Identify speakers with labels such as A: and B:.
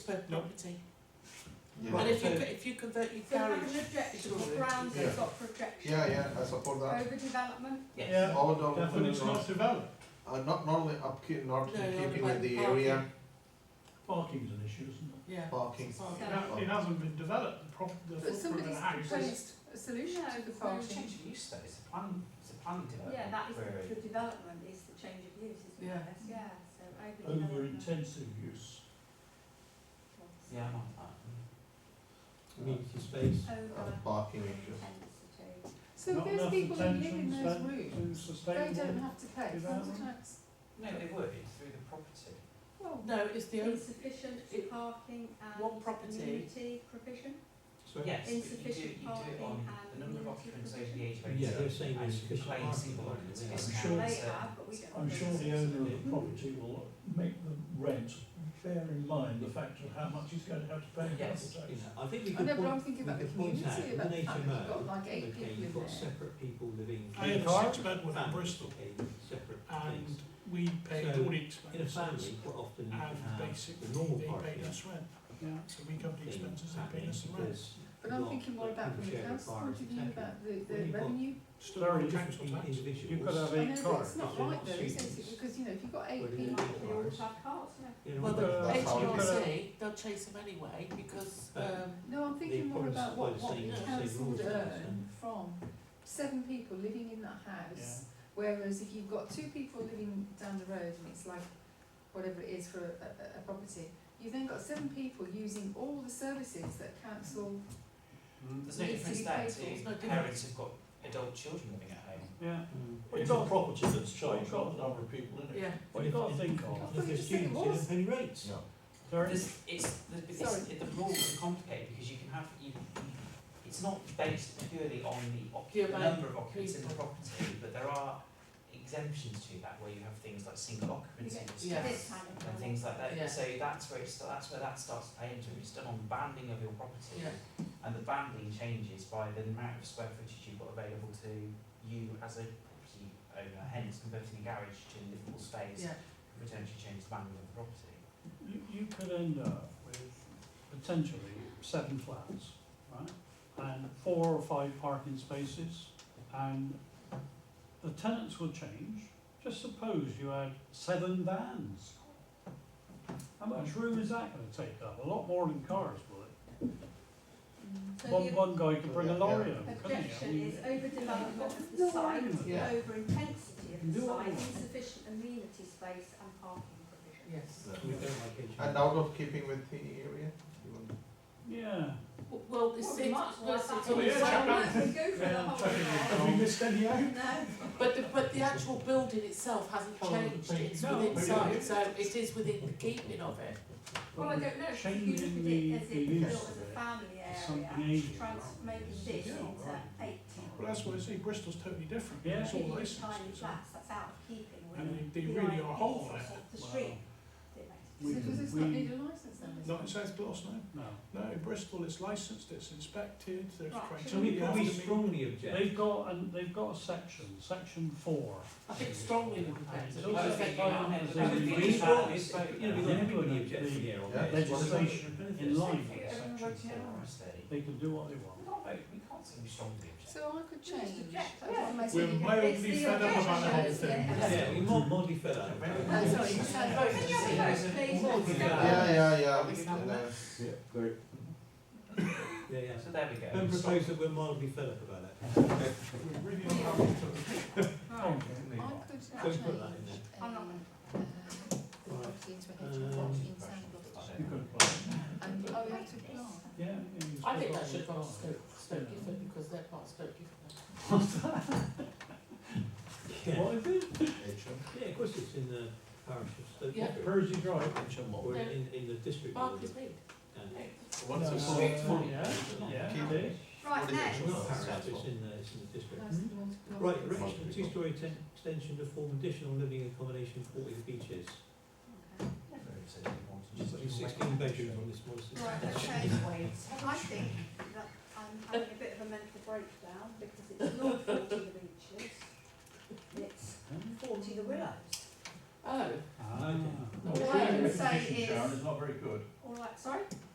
A: per
B: No.
A: property.
C: Yeah.
A: And
B: Right,
A: if you,
B: so-
A: co- if you convert your
D: So have
A: garage,
D: an objection,
A: It's all
D: what
A: right.
D: grounds
C: Yeah.
D: they've got for objection?
C: Yeah, yeah, I support that.
D: Overdevelopment?
B: Yeah,
C: All the
B: definition of development.
C: Uh, not not only upkeep, not
A: No,
C: in
A: not
C: keeping with
A: about
C: the
A: parking.
C: area,
B: Parking's an issue, isn't it?
A: yeah.
C: parking.
A: Parking.
B: It ha- It hasn't been developed, the prop, the
D: But
B: footprint of the
D: somebody's
B: house is,
D: proposed a solution
E: No,
D: to the
E: there's no
D: parking.
E: change of use though, it's a plan, it's a plan development.
D: Yeah, that is
E: where
D: the development, is the change of use, isn't it?
A: Yeah.
D: That's- Yeah, so
B: over
D: overdevelopment.
B: intensive use.
E: it- Yeah, I'm on that.
F: community space.
D: Over
C: Uh, parking issues.
D: intensity.
G: So
B: Not
G: if
B: enough
G: there's people who live in
B: attention
G: those
B: spent to
G: rooms, they
B: sustainable
G: don't have to pay council
B: development.
G: tax.
E: No, they would, it's through the property.
D: Well,
A: No, it's the only,
D: insufficient
A: it-
D: parking
A: one
D: and
A: property-
D: community provision?
F: So
E: Yes, but you do, you do
D: Insufficient
E: it on
D: parking and
E: the number of
D: limited
E: occupants over the
D: provision.
E: age of
F: Yeah,
E: eighteen.
F: they're saying
E: and you
F: insufficient
E: claim
F: parking
E: single
F: parking,
E: occupancy
F: yeah. I'm
E: discount,
B: sure-
D: They
E: so-
D: have, but we don't.
B: I'm sure the owner of the property will make the rent bear in mind the fact of how much he's going to have to pay in
E: Yes,
B: council
F: You
B: tax.
F: know, I think we
G: I
F: could
G: know, but I'm
F: point,
G: thinking
F: we
G: about the
F: could point out
G: community,
F: with
G: about
F: an
G: the fact that you've got
F: HMO,
G: like eight
F: okay,
G: people in
F: you've got
G: there.
F: separate people living.
B: I
F: in
B: had six bedward in
F: families,
B: Bristol
F: okay, Separate
B: and
F: things.
B: we paid
F: So,
B: all the
F: In a
B: expenses
F: family, quite often you can
B: and
F: have
B: basically
F: the normal
B: they
F: part
B: paid us rent. So we covered the expenses, they paid us the rent.
G: But I'm thinking more about from the council point of view, about the,
F: Well,
G: the
F: you've got-
G: revenue.
B: Still on council tax.
F: Individuals.
H: You've got to have
G: I know,
H: eight
G: but it's
H: cars.
G: not
F: they're
G: right
F: not
G: though, isn't it?
F: students.
G: Because, you know, if you've got
F: Well,
G: eight
F: you
G: people.
F: know,
D: They all have cars, no?
F: You know,
A: well, the
H: Uh, that's how it is.
A: HMRC, they'll chase them anyway because, um,
G: No, I'm thinking more
F: probably
G: about what,
F: suppose
G: what
F: they-
G: the
A: they
G: council would
F: rules about it,
G: earn from seven people living in that house. Whereas if you've got two people living down the road and it's like whatever it is for a, a, a property, you've then got seven people using all the services that council,
B: Hmm.
E: There's no
G: Needs to
E: difference
G: be
E: there
G: paid for, it's
A: not
E: to
A: different.
E: parents who've got adult children living at home.
B: Yeah.
F: Mm.
B: It's not property that's charged, not the number of people in it.
A: yeah,
B: But you've got to think
G: I
B: of,
G: thought you
F: If
G: just said it
F: students, you
G: was.
F: don't pay any rates.
C: No.
B: there is,
E: There's, it's, the, but it's,
G: Sorry.
E: the rules are complicated because you can have, you, you- it's not based purely on the
A: Yeah,
E: occup, the
A: but-
E: number of occupants in the property, but there are exemptions to that where you have things like single occupancy
D: Yeah.
A: Yeah.
E: restrictions
D: This kind of
E: and
D: thing.
E: things like that.
A: Yeah.
E: So that's where it sta- that's where that starts to play into it. It's done on banding of your property,
A: Yeah.
E: and the banding changes by the amount of square footage you've got available to you as a property owner. Hence, converting a garage to livable space
A: yeah.
E: could potentially change the banding of the property.
B: you, you could end up with potentially seven flats, right? And four or five parking spaces, and the tenants will change. Just suppose you had seven vans. How much room is that gonna take up? A lot more than cars, will it?
D: So
B: One,
D: the
B: one guy could bring a lorry over, couldn't he? I
D: objection
B: mean,
D: is overdevelopment of the
B: no
D: site,
B: argument.
C: Yeah.
D: over intensity of the
B: No
D: site,
B: argument.
D: insufficient amenity space and parking provision.
A: Yes.
F: We don't like
C: And
F: HMO.
C: out of keeping with the area, you want
B: Yeah.
A: W- Well, it's,
D: Well,
A: it's,
D: we might
A: well, it's,
D: like
A: it's
D: that.
A: on the
B: Yeah,
A: same-
B: yeah.
D: Well, we go for the whole lot.
B: Have we missed any out?
D: No,
A: But the, but the actual building itself hasn't
B: Oh,
A: changed,
B: but-
A: it's
B: no,
A: within
B: but-
A: sight, so it is within the keeping of it.
D: well, I don't know, if you look at
B: Changing the-
D: it as
B: the
D: it
B: use
D: built as
B: of it
D: a family
B: something
D: area,
B: ageing,
D: trans, making this
B: Yeah,
D: into
B: right.
D: eight.
B: Well, that's what I see, Bristol's totally different, Yeah. it's all
D: really
B: licenses.
D: Tiny flats, that's out of keeping with.
B: And they, they
D: the
B: really
D: idea
B: are whole
D: of
B: there.
D: The
B: Wow.
D: street. It
B: We-
G: so
D: makes
G: does this
B: we-
G: not need a licence then? does
B: Not
G: it?
B: in South Gloss, no. No. No, in Bristol it's licensed, it's inspected, there's
D: Right,
B: criteria.
D: should
F: So we
B: you have
F: probably
B: to meet.
F: strongly object.
B: They've got, and they've got a section, section four.
A: I think strongly would
B: It's
A: be.
B: also
E: I think you
B: defined
E: might have
B: as
E: to
B: a
E: have
F: Because
E: a
F: if
E: big
F: we
B: legal-
F: brought
E: family,
F: this,
E: but,
F: you know, we
E: yeah.
F: don't have anybody objecting here on
C: Yeah.
F: this.
B: legislation in line with section
E: Yeah, everyone
B: four.
E: voted unanimously.
B: They can do what they
E: We
B: want.
E: can't vote, we can't say we strongly object.
G: So I could change.
D: Yeah.
G: That's what I'm
B: We're
G: saying.
B: mildly
D: the
B: fed up about the whole
D: objections,
B: thing.
D: yeah.
F: Yeah, we mod, mod defer that.
G: I'm Oh, sorry, you said vote.
D: Can you have a vote, please?
F: Well,
D: Let's
F: yeah.
D: go.
C: Yeah, yeah, yeah.
E: We can have
C: And
E: that.
C: then-
H: Yeah, great.
F: Yeah, yeah.
E: So there we go.
F: Don't propose that we're mildly fed up about that.
B: We're really unhappy to
D: Right.
G: I could change
F: put that in there.
G: uh,
D: I'm not gonna-
G: the property into a hedge
F: Um,
G: plot in Sandbrook.
B: You could apply.
G: And oh, we have to apply.
B: Yeah. yeah,
A: I
B: you
A: think
B: still
A: that
B: got
A: should
B: to
A: go on
B: apply.
A: Stoke, Stoke Gifford, because they're part of Stoke Gifford.
F: Yeah,
B: What is it?
F: yeah, of course it's in the parish of Stoke.
A: Yeah.
F: Gifford,
B: Percy Drive.
F: Or in, in the district.
A: Mark
F: of
A: is made.
F: and-
C: Once
B: Uh,
C: it's
E: all-
B: yeah, Yeah,
C: Keep-
B: it is.
D: Right,
C: Yeah.
D: next.
F: It's not parish, it's in the, it's in the district.
G: Nice and water-
F: Right,
G: water-
F: erection of two-storey ten- extension to form additional living accommodation for the beaches. Just like sixteen bedrooms on this one. so-
D: Right, okay, I think that I'm having a bit of a mental breakdown because it's not forty the beaches, it's forty the willows.
A: Oh,
B: Ah.
A: Well, I would
D: say is-
B: not very good.
D: All all that, sorry?